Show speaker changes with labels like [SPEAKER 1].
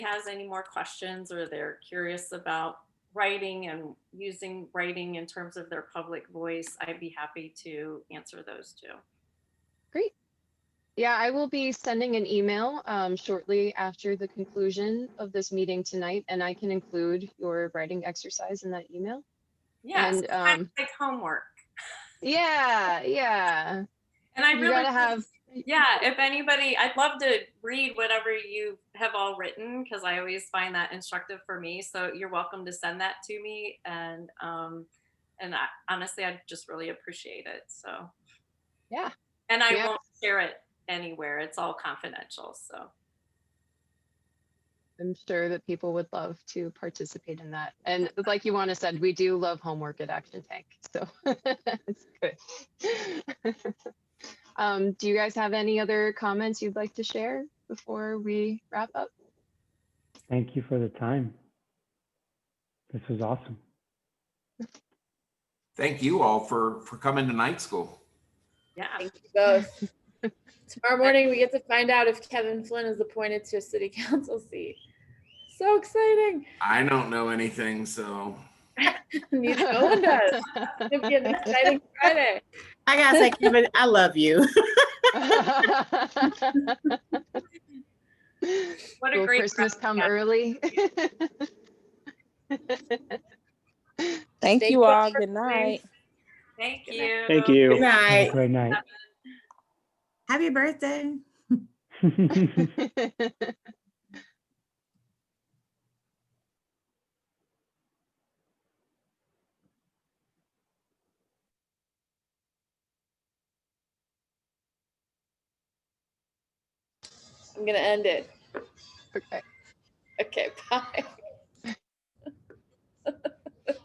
[SPEAKER 1] has any more questions or they're curious about writing and using writing in terms of their public voice, I'd be happy to answer those too.
[SPEAKER 2] Yeah, I will be sending an email um, shortly after the conclusion of this meeting tonight, and I can include your writing exercise in that email.
[SPEAKER 1] Yes,
[SPEAKER 2] And,
[SPEAKER 1] it's kind of
[SPEAKER 2] um,
[SPEAKER 1] like homework.
[SPEAKER 2] Yeah, yeah.
[SPEAKER 1] And I
[SPEAKER 2] you
[SPEAKER 1] really
[SPEAKER 2] gotta
[SPEAKER 1] think-
[SPEAKER 2] have-
[SPEAKER 1] Yeah, if anybody, I'd love to read whatever you have all written because I always find that instructive for me. So you're welcome to send that to me, and um, and I, honestly, I just really appreciate it. So
[SPEAKER 2] Yeah.
[SPEAKER 1] and I
[SPEAKER 2] Yeah.
[SPEAKER 1] won't share it anywhere. It's all confidential. So
[SPEAKER 2] I'm sure that people would love to participate in that. And like Ioana said, we do love homework at Action Tank, so it's good. um, do you guys have any other comments you'd like to share before we wrap up?
[SPEAKER 3] Thank you for the time. This was awesome.
[SPEAKER 4] Thank you all for, for coming to night school.
[SPEAKER 1] yeah,
[SPEAKER 5] Thank you both. Tomorrow morning, we get to find out if Kevin Flynn is appointed to a city council seat. So exciting.
[SPEAKER 4] I don't know anything, so
[SPEAKER 5] Neither no one does. It'll be an exciting Friday.
[SPEAKER 6] I gotta say, Kevin, I love you.
[SPEAKER 1] what a
[SPEAKER 2] Will
[SPEAKER 1] great
[SPEAKER 2] Christmas
[SPEAKER 1] present.
[SPEAKER 2] come
[SPEAKER 1] Yeah.
[SPEAKER 2] early?
[SPEAKER 7] Thank
[SPEAKER 5] Thank
[SPEAKER 7] you
[SPEAKER 5] you
[SPEAKER 7] all.
[SPEAKER 5] for
[SPEAKER 7] Good night.
[SPEAKER 1] Thank you.
[SPEAKER 8] Thank you.
[SPEAKER 6] Good night.
[SPEAKER 3] Have a great night.
[SPEAKER 6] Happy birthday.
[SPEAKER 5] I'm going to end it.
[SPEAKER 2] okay.
[SPEAKER 5] Okay, bye.